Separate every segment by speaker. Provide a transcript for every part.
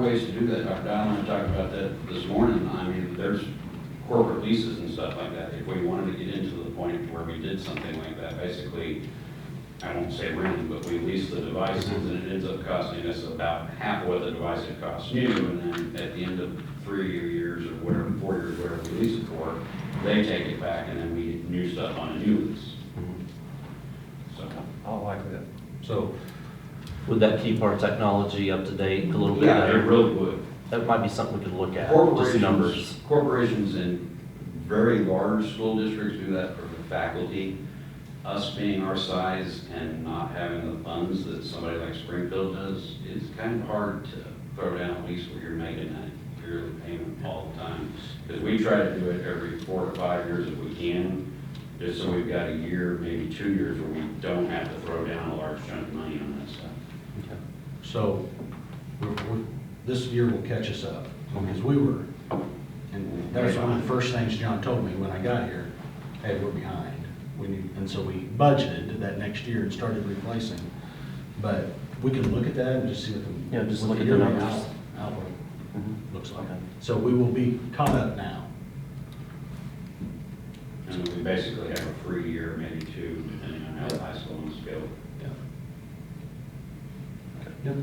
Speaker 1: ways to do that, Dr. Dial and I talked about that this morning, I mean, there's corporate leases and stuff like that, if we wanted to get into the point where we did something like that, basically, I won't say rent, but we lease the devices, and it ends up costing us about half what the device it costs new, and then at the end of three years or whatever, four years, whatever we lease it for, they take it back, and then we get new stuff on a new lease, so.
Speaker 2: I like that.
Speaker 3: So would that keep our technology up to date a little bit?
Speaker 1: Yeah, it
Speaker 3: better?
Speaker 1: really would.
Speaker 3: That might be something we could look at, just
Speaker 1: Corporations,
Speaker 3: numbers.
Speaker 1: corporations in very large school districts do that for the faculty. Us being our size and not having the funds that somebody like Springfield does, it's kind of hard to throw down a lease where you're making a yearly payment all the time. Because we try to do it every four to five years if we can, just so we've got a year, maybe two years where we don't have to throw down a large chunk of money on that stuff.
Speaker 3: Okay.
Speaker 1: Mm-hmm.
Speaker 4: So we're, we're, this year will catch us up, because we were, and that was one of the first things John told me when I got here, hey, we're behind. We need, and so we budgeted that next year and started replacing. But we can look at that and just see what the.
Speaker 3: Yeah, just
Speaker 4: what
Speaker 3: look at the
Speaker 4: yearly
Speaker 3: numbers.
Speaker 4: out- Outlook looks like.
Speaker 3: Okay.
Speaker 4: So we will be caught up now.
Speaker 1: And we basically have a free year, maybe two, depending on how the high school wants to go.
Speaker 4: Yep.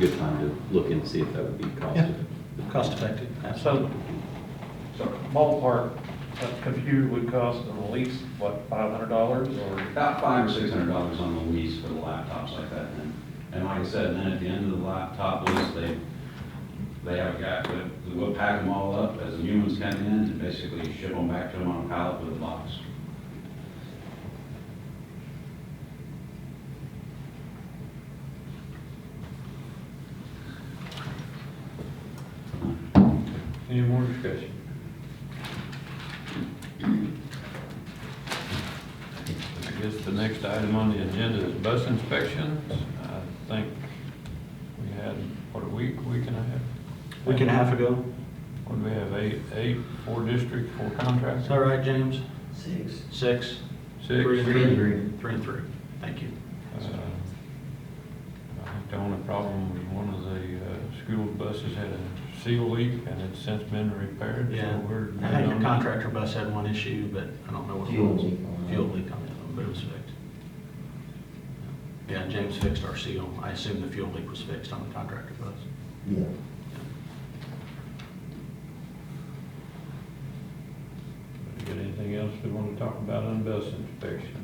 Speaker 5: good time to look and see if that would be
Speaker 4: Yeah,
Speaker 5: costed.
Speaker 4: cost effective.
Speaker 2: So, so ballpark, a computer would cost at least, what, five hundred dollars or?
Speaker 1: About five or six hundred dollars on the lease for the laptops like that, and, and like I said, and then at the end of the laptop lease, they, they have a guy, that will pack them all up as the new ones come in, and basically ship them back to them on a pallet with a box.
Speaker 2: Any more discussion?
Speaker 6: I guess the next item on the agenda is bus inspections. I think we had, what, a week, week and a half?
Speaker 4: Week and a half ago.
Speaker 6: What do we have, eight, eight, four district, four
Speaker 4: Is
Speaker 6: contracts?
Speaker 4: that right, James? Six.
Speaker 6: Six.
Speaker 4: Three and three. Three and three. Thank you.
Speaker 6: Uh, I think the only problem was one of the uh, school buses had a seal leak and it's since been repaired. so
Speaker 4: Yeah,
Speaker 6: we're
Speaker 4: I think
Speaker 6: good
Speaker 4: the
Speaker 6: on that.
Speaker 4: contractor bus had one issue, but I don't know what it was. Fuel leak on the other one, but it was fixed. Yeah, James fixed our seal. I assume the fuel leak was fixed on the contractor bus.
Speaker 7: Yeah,
Speaker 6: You Got anything else we want to talk about on bus inspections?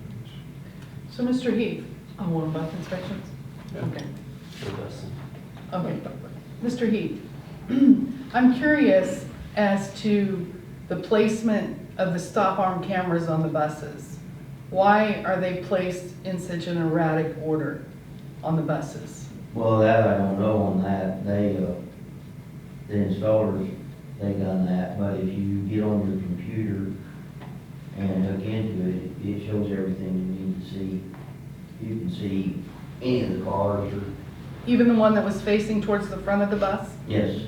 Speaker 8: So, Mr. Heath, on one bus inspections?
Speaker 6: Yeah.
Speaker 8: Okay,
Speaker 3: Sure, Dustin.
Speaker 8: okay. Mr. Heath, I'm curious as to the placement of the stop arm cameras on the buses. Why are they placed in such an erratic order on the buses?
Speaker 7: well, that I don't know on that, they, uh, the installers, they done that, but if you get on your computer and hook into it, it shows everything you need to see. You can see any of the cars, or,
Speaker 8: Even the one that was facing towards the front of the bus?
Speaker 7: yes,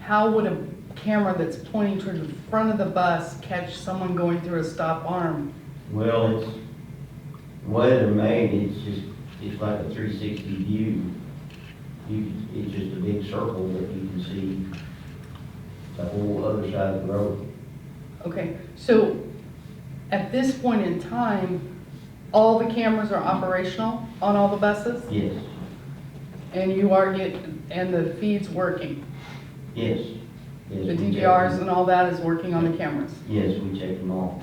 Speaker 8: How would a camera that's pointing toward the front of the bus catch someone going through a stop arm?
Speaker 7: well, it's, the way they're made, it's just, it's like a three sixty view. You, can- it's just a big circle that you can see the whole other side of the road.
Speaker 8: Okay, so at this point in time, all the cameras are operational on all the buses?
Speaker 7: Yes,
Speaker 8: And you are getting, and the feed's working?
Speaker 7: yes. yes,
Speaker 8: The
Speaker 7: we check
Speaker 8: DVRs
Speaker 7: them.
Speaker 8: and all that is working on the cameras?
Speaker 7: Yes, we check them all.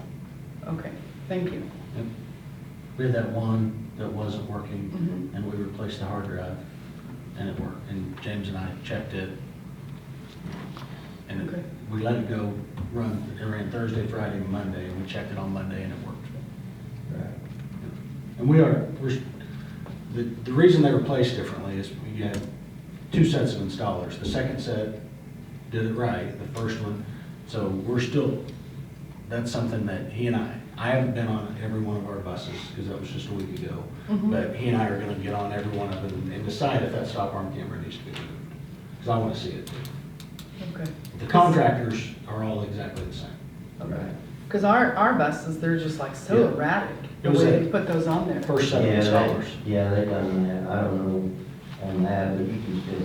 Speaker 8: Okay, thank you.
Speaker 4: We had that one that wasn't working,
Speaker 8: Mhm.
Speaker 4: and we replaced the hard drive, and it worked. And James and I checked it. And
Speaker 8: Okay.
Speaker 4: it- we let it go run, it ran Thursday, Friday, and Monday, and we checked it on Monday, and it worked.
Speaker 7: Right.
Speaker 4: And we are, we're, the, the reason they were placed differently is we had two sets of installers. The second set did it right, the first one, so we're still, that's something that he and I, I haven't been on every one of our buses, because that was just a week ago.
Speaker 8: Mhm.
Speaker 4: But he and I are gonna get on every one of them and decide if that stop arm camera needs to be moved, because I wanna see it too.
Speaker 8: Okay.
Speaker 4: The contractors are all exactly the same.
Speaker 8: Okay. Because our, our buses, they're just like so
Speaker 4: Yeah.
Speaker 8: erratic,
Speaker 4: It
Speaker 8: the
Speaker 4: was
Speaker 8: way
Speaker 4: a-
Speaker 8: they put those on there.
Speaker 4: First set of
Speaker 7: Yeah,
Speaker 4: installers.
Speaker 7: they, yeah, they done that. I don't know on that, but you can still